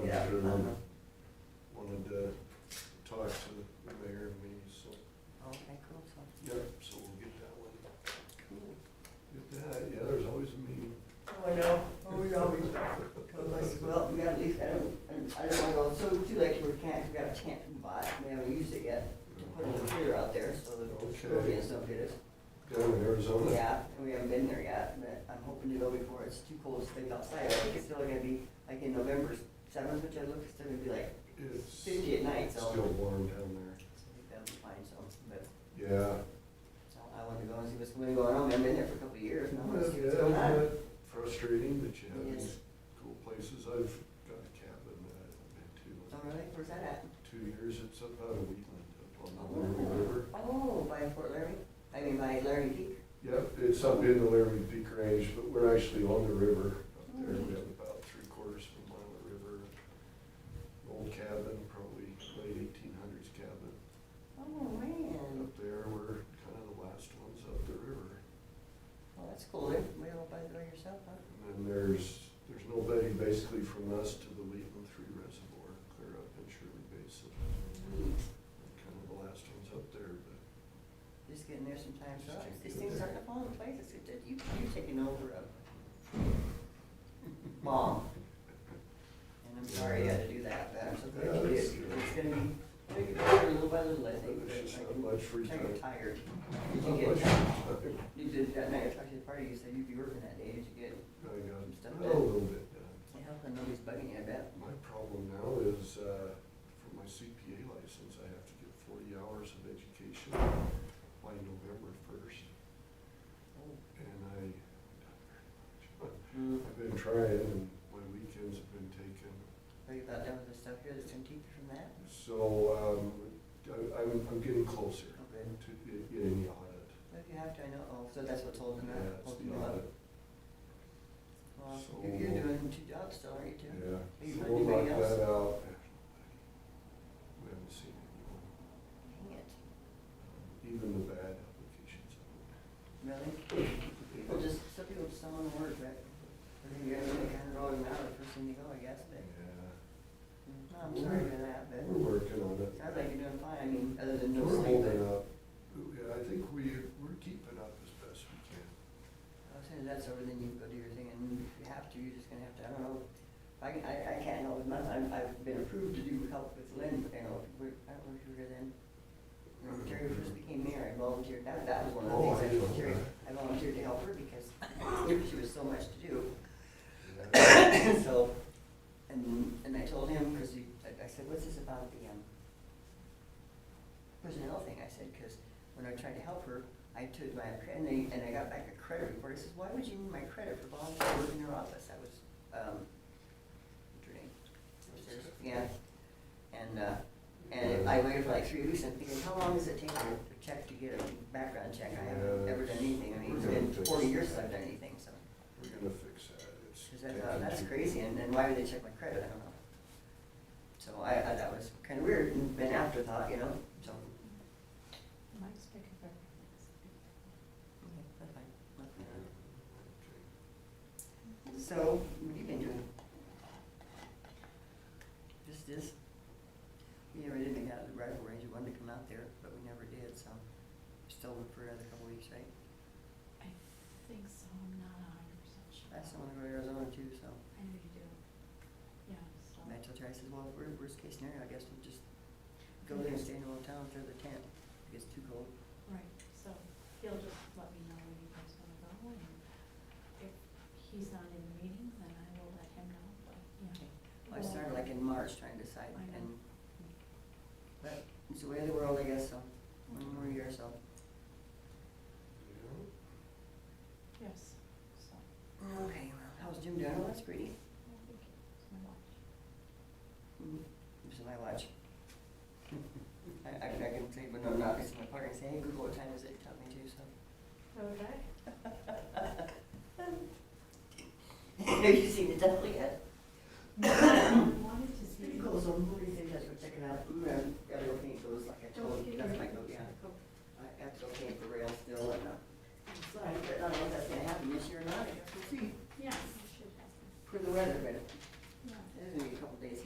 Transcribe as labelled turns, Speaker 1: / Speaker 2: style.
Speaker 1: and then wanted to talk to the mayor and me, so,
Speaker 2: Okay, cool, so,
Speaker 1: yeah, so we'll get that one.
Speaker 2: cool.
Speaker 1: Get that, yeah, there's always a meeting.
Speaker 2: Oh, I know, oh, we always, told us, well, we gotta leave, I don't, I don't wanna go, so too late, we can't, we got a tent from buy, we haven't used it yet. To put a computer out there so that
Speaker 1: Okay.
Speaker 2: the audience don't get us.
Speaker 1: Down in Arizona.
Speaker 2: Yeah, and we haven't been there yet, but I'm hoping to go before it's too cold to stay outside. I think it's still gonna be like in November seventh, which I looked, it's still gonna be like
Speaker 1: It's
Speaker 2: fifty at night, so.
Speaker 1: still warm down there.
Speaker 2: I think that'll be fine, so, but
Speaker 1: Yeah.
Speaker 2: so I want to go and see what's going on. I've been there for a couple of years now, I wanna see what's
Speaker 1: Yeah,
Speaker 2: going on.
Speaker 1: but Frustrating that you have
Speaker 2: It
Speaker 1: these
Speaker 2: is.
Speaker 1: cool places. I've got a cabin that I've been to
Speaker 2: Oh,
Speaker 1: in
Speaker 2: really? Where's that at?
Speaker 1: two years. It's up out of Wheatland, up on the Laramie River.
Speaker 2: Oh, by Fort Laramie, I mean by Laramie Peak.
Speaker 1: Yep, it's up in the Laramie Peak Range, but we're actually on the river up there.
Speaker 2: Mm.
Speaker 1: We have about three quarters of a mile of river. Old cabin, probably late eighteen hundreds cabin.
Speaker 2: Oh, man,
Speaker 1: Up there, we're kind of the last ones up the river.
Speaker 2: well, that's cool, eh? way all by the way yourself, huh?
Speaker 1: And then there's, there's nobody basically from us to the Wheatland Three Reservoir, clear up in Shirley Basin. We're Kind of the last ones up there, but
Speaker 2: Just getting there sometimes,
Speaker 1: Just
Speaker 2: so
Speaker 1: getting
Speaker 2: these things
Speaker 1: there.
Speaker 2: aren't falling in place, it's, good that you, you're taking over a mom. And I'm sorry you had to do that, but I'm so
Speaker 1: Yeah,
Speaker 2: glad you did,
Speaker 1: that's
Speaker 2: it's
Speaker 1: good.
Speaker 2: gonna be, it'll get better little by little, I think, but
Speaker 1: there's just
Speaker 2: I
Speaker 1: not
Speaker 2: can-
Speaker 1: much free
Speaker 2: I
Speaker 1: time.
Speaker 2: get tired. Did
Speaker 1: Not
Speaker 2: you
Speaker 1: much
Speaker 2: get,
Speaker 1: free time.
Speaker 2: you did that night, I talked to the party, you said you'd be working that day, did you get,
Speaker 1: I
Speaker 2: Stuff
Speaker 1: got
Speaker 2: that-
Speaker 1: a little bit done.
Speaker 2: yeah, and nobody's bugging you, I bet.
Speaker 1: My problem now is, uh, for my CPA license, I have to get forty hours of education by November first. And I,
Speaker 2: Mm.
Speaker 1: I've been trying and my weekends have been taken.
Speaker 2: Are you about done with the stuff here that's gonna keep you from that?
Speaker 1: So, um, I- I'm, I'm getting closer
Speaker 2: Oh,
Speaker 1: to
Speaker 2: good.
Speaker 1: get- getting the audit.
Speaker 2: But if you have to, I know, oh, so that's what's holding
Speaker 1: Yeah,
Speaker 2: up,
Speaker 1: it's
Speaker 2: holding
Speaker 1: the
Speaker 2: you up.
Speaker 1: audit.
Speaker 2: Well,
Speaker 1: So-
Speaker 2: you're, you're doing two jobs still, aren't you, too?
Speaker 1: Yeah,
Speaker 2: Are you
Speaker 1: so
Speaker 2: putting
Speaker 1: we'll knock
Speaker 2: anybody else?
Speaker 1: that out. We haven't seen anyone,
Speaker 2: Dang it,
Speaker 1: even the bad applications.
Speaker 2: really? People just, some people just don't wanna work, but, I mean, you're gonna make a hundred dollars an hour the first thing you go, I guess, but,
Speaker 1: Yeah,
Speaker 2: no, I'm sorry for that,
Speaker 1: we're
Speaker 2: but,
Speaker 1: working on it.
Speaker 2: sounds like you're doing fine, I mean, other than no
Speaker 1: We're
Speaker 2: sleep,
Speaker 1: holding
Speaker 2: but,
Speaker 1: up. Yeah, I think we, we're keeping up as best we can.
Speaker 2: as soon as that's over, then you can go do your thing, and if you have to, you're just gonna have to, I don't know. I, can- I, I can't help with mine, I've, I've been approved to do help with Lynn, you know, we, I don't know if you were here then. When Terry first became mayor, I volunteered, that, that was one
Speaker 1: Oh,
Speaker 2: of the
Speaker 1: I
Speaker 2: things I
Speaker 1: know
Speaker 2: volunteered, I
Speaker 1: that.
Speaker 2: volunteered to help her because she was so much to do.
Speaker 1: Yeah.
Speaker 2: So, and, and I told him, cause he, I I said, what's this about the, um, personnel thing, I said, cause when I tried to help her, I took my, cre- and they, and I got back a credit report, I says, why would you need my credit for volunteering work in your office, that was, um, what's her name? What's her- Yeah, and, uh, and I waited for like three weeks, and I'm thinking, how long does it take to to check to get a background check, I haven't
Speaker 1: Yeah.
Speaker 2: ever done anything, I mean, it's been forty years since I've done anything, so.
Speaker 1: We're gonna fix that. It's
Speaker 2: Cause I
Speaker 1: taken
Speaker 2: thought, "Oh, that's
Speaker 1: too-
Speaker 2: crazy, and then why would they check my credit, I don't know. So I, I, that was kinda weird, and an afterthought, you know, so.
Speaker 3: Mike's picking up.
Speaker 2: okay, that's fine.
Speaker 1: Yeah,
Speaker 2: Nothing to-
Speaker 1: okay.
Speaker 2: So, what have you been doing? Just this, we never did make out the rifle range, we wanted to come out there, but we never did, so. Still look for another couple weeks, right?
Speaker 3: I think so, I'm not a hundred percent sure.
Speaker 2: I still wanna go to Arizona too, so.
Speaker 3: I know you do. Yeah, so.
Speaker 2: And I told her, I said, well, wor- worst case scenario, I guess we'll just go there and stay in a little town, throw the tent, it gets too cold.
Speaker 3: Right, so he'll just let me know when you guys wanna go and if he's not in the meeting, then I will let him know, but, yeah.
Speaker 2: I started like in March trying to decide
Speaker 3: I know.
Speaker 2: and, but it's the way of the world, I guess, so, one more year or so.
Speaker 1: Yeah.
Speaker 3: Yes, so.
Speaker 2: Okay, well, how's Jim doing? Oh, that's pretty.
Speaker 3: I think it's my watch.
Speaker 2: Mhm. This is my watch. I, I can, I can say, but no, not, it's my partner, say, hey, Google, what time is it? Tell me too,
Speaker 3: Okay.
Speaker 2: so. Have you seen the devil yet? Mm-hmm. Oh, uh,